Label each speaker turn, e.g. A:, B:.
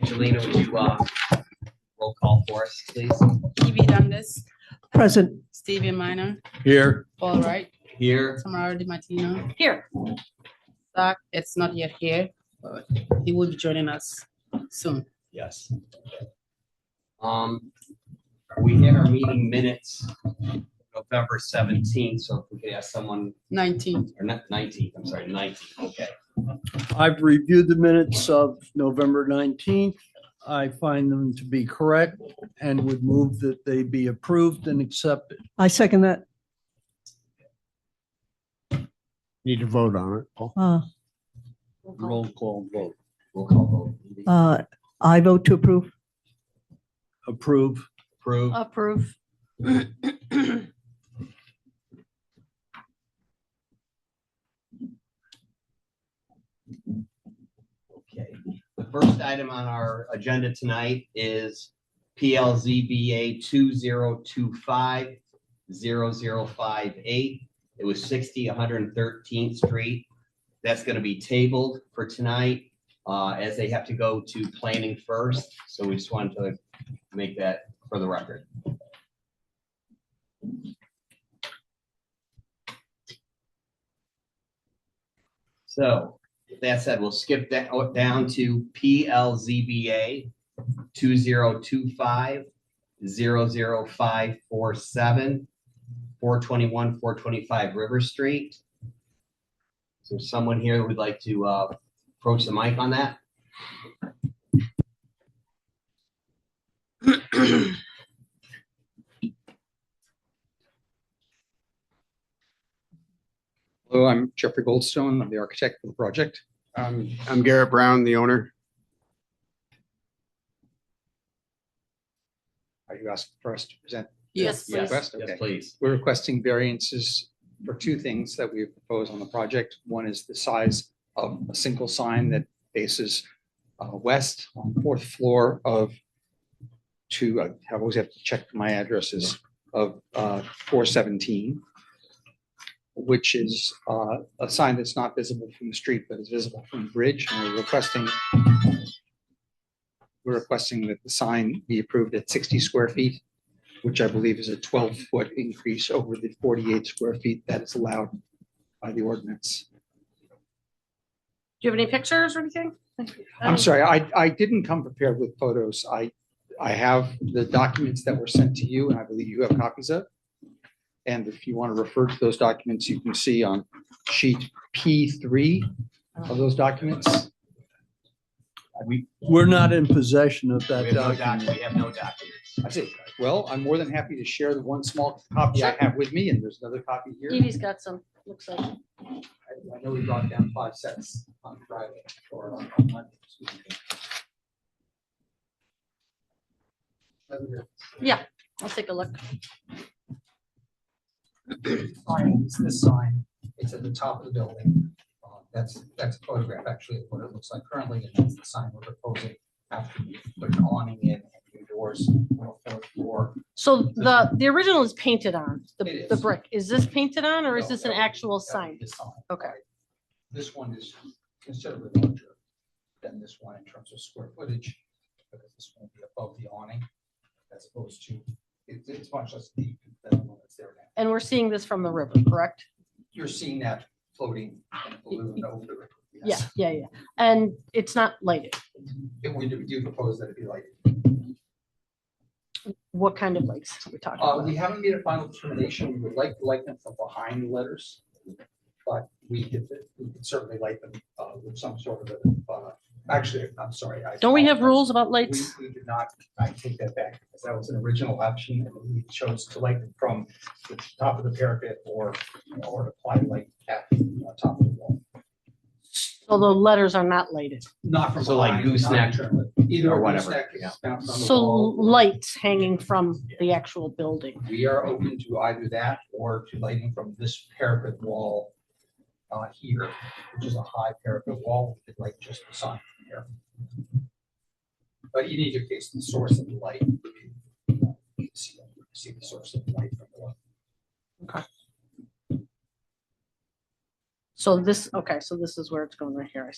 A: Angelina, would you, uh, roll call for us, please?
B: Evie Dundas,
C: Present.
B: Stephen Minor,
D: Here,
B: Paul Wright,
A: Here,
B: Tamara Di Martino.
E: Here.
B: Zach, it's not yet here, but he will be joining us soon.
A: yes. Um, we had our meeting minutes November seventeenth, so if we could ask someone,
B: Nineteen.
A: or not nineteenth, I'm sorry, nineteenth, okay.
D: I've reviewed the minutes of November 19th. I find them to be correct and would move that they be approved and accepted.
C: I second that.
F: Need to vote on it, Paul.
C: Uh,
D: Roll call vote.
A: Roll call vote.
C: uh, I vote to approve.
D: Approve.
A: Approved.
E: Approve.
A: Okay, the first item on our agenda tonight is PLZBA two zero two five zero zero five eight. It was sixty, one hundred and thirteenth street. That's gonna be tabled for tonight, uh, as they have to go to planning first, so we just wanted to make that for the record. So, with That said, we'll skip that o- down to PLZBA two zero two five zero zero five four seven, four twenty-one, four twenty-five River Street. So someone here who would like to uh, approach the mic on that?
G: Hello, I'm Jeffrey Goldstone. I'm the architect for the project.
F: Um, I'm Garrett Brown, the owner.
G: Are you asking for us to present?
E: Yes,
A: Yes,
E: please.
G: Request?
A: yes,
G: Okay.
A: please.
G: We're requesting variances for two things that we propose on the project. One is the size of a single sign that faces uh, west on the fourth floor of two, I always have to check my addresses, of uh, four seventeen, which is uh, a sign that's not visible from the street, but is visible from the bridge. And we're requesting we're requesting that the sign be approved at sixty square feet which I believe is a twelve foot increase over the forty eight square feet that is allowed by the ordinance.
E: Do you have any pictures or anything? um, Oh.
G: I'm sorry, I, I didn't come prepared with photos. I, I have the documents that were sent to you and I believe you have copies of. And if you want to refer to those documents, you can see on sheet P three of those documents.
A: We
D: We're not in possession of
A: we
D: that
A: have no doc,
D: document.
A: we have no documents.
G: I see. Well, I'm more than happy to share the one small copy I have with me and there's another copy here.
E: Evie's got some, looks like.
G: I I know we brought down five sets on Friday or on on Monday. excuse me.
E: I'll take a look.
G: Sign is this sign. It's at the top of the building. Uh, That's, that's a photograph actually of what it looks like currently. And that's the sign we're proposing after we put an awning in and new doors on the fourth floor.
E: So the, the original is painted on, the,
G: It
E: the
G: is.
E: brick. Is this painted on or is
G: No,
E: this
G: that
E: an
G: would be-
E: actual
G: that would
E: sign?
G: be the sign.
E: Okay.
G: This one is considerably larger than this one in terms of square footage, because this one will be above the awning as opposed to, it's, it's much less deep than the one that's there now.
E: And we're seeing this from the river, correct?
G: You're seeing that floating and balloon over the river.
E: Yeah, yeah, yeah. And it's not lighted.
G: And we do- we do propose that it be like,
E: What kind of lights are we talking
G: uh,
E: about?
G: we haven't made a final determination. We would like to light them from behind the letters. But we could, we could certainly light them, uh, with some sort of, a, uh, actually, I'm sorry. I
E: Don't we have
G: apologize.
E: rules about
G: We,
E: lights?
G: we did not, I take that back, because that was an original option, and we chose to light it from the top of the parapet or, you know, or apply light at the uh, top of the wall.
E: So the letters are not lighted.
G: Not from.
A: So like
G: behind, not
A: gooseneck
G: internally. Either
A: or
G: a
A: whatever,
G: gooseneck
A: yeah.
G: is mounted on the
E: So
G: wall.
E: lights hanging from the actual building.
G: We are open to either that or to lighting from this parapet wall uh, here, which is a high parapet wall, with like just the sun from here. But in either case, the source of the light. you can See see the source of the light from below.
E: So this, okay, so this is where it's going right here. I